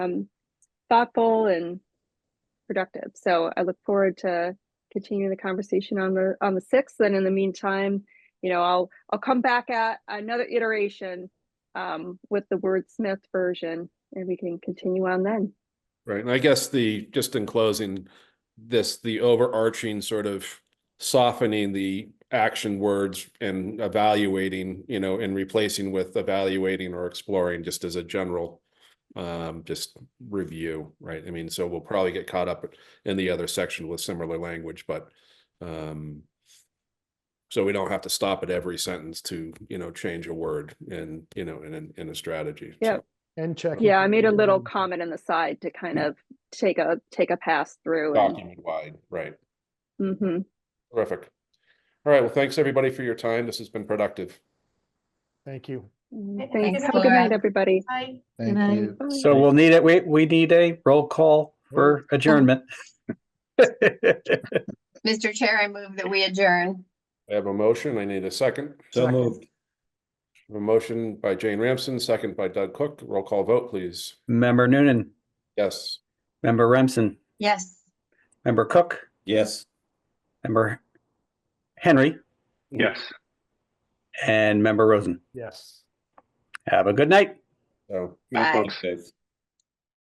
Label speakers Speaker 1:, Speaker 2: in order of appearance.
Speaker 1: um, thoughtful and productive. So I look forward to continuing the conversation on the, on the sixth. And in the meantime, you know, I'll, I'll come back at another iteration um, with the wordsmith version and we can continue on then.
Speaker 2: Right, and I guess the, just in closing, this, the overarching sort of softening the action words and evaluating, you know, and replacing with evaluating or exploring, just as a general um, just review, right? I mean, so we'll probably get caught up in the other section with similar language, but um so we don't have to stop at every sentence to, you know, change a word and, you know, in, in, in a strategy.
Speaker 1: Yeah.
Speaker 2: So,
Speaker 3: And check.
Speaker 1: Yeah, I made a little comment in the side to kind of take a, take a pass through. and-
Speaker 2: Document wide, right?
Speaker 1: Mhm.
Speaker 2: Terrific. All right, well, thanks everybody for your time. This has been productive.
Speaker 3: Thank you.
Speaker 4: Thanks,
Speaker 1: Thanks. Have a
Speaker 4: Laura.
Speaker 1: good night, everybody.
Speaker 4: Bye.
Speaker 5: Thank
Speaker 6: I-
Speaker 5: you.
Speaker 1: Bye.
Speaker 7: So we'll need it, we, we need a roll call for adjournment.
Speaker 4: Mr. Chair, I move that we adjourn.
Speaker 2: I have a motion. I need a second.
Speaker 5: So
Speaker 3: Second.
Speaker 5: moved.
Speaker 2: A motion by Jane Ramsden, second by Doug Cook. Roll call vote, please.
Speaker 7: Member Noonan,
Speaker 2: Yes.
Speaker 7: member Remsen,
Speaker 4: Yes.
Speaker 7: member Cook,
Speaker 5: Yes.
Speaker 7: member Henry,
Speaker 2: Yes.
Speaker 7: and member Rosen.
Speaker 3: Yes.
Speaker 7: Have a good night.
Speaker 2: So.
Speaker 4: Bye.
Speaker 5: Thanks, Dave.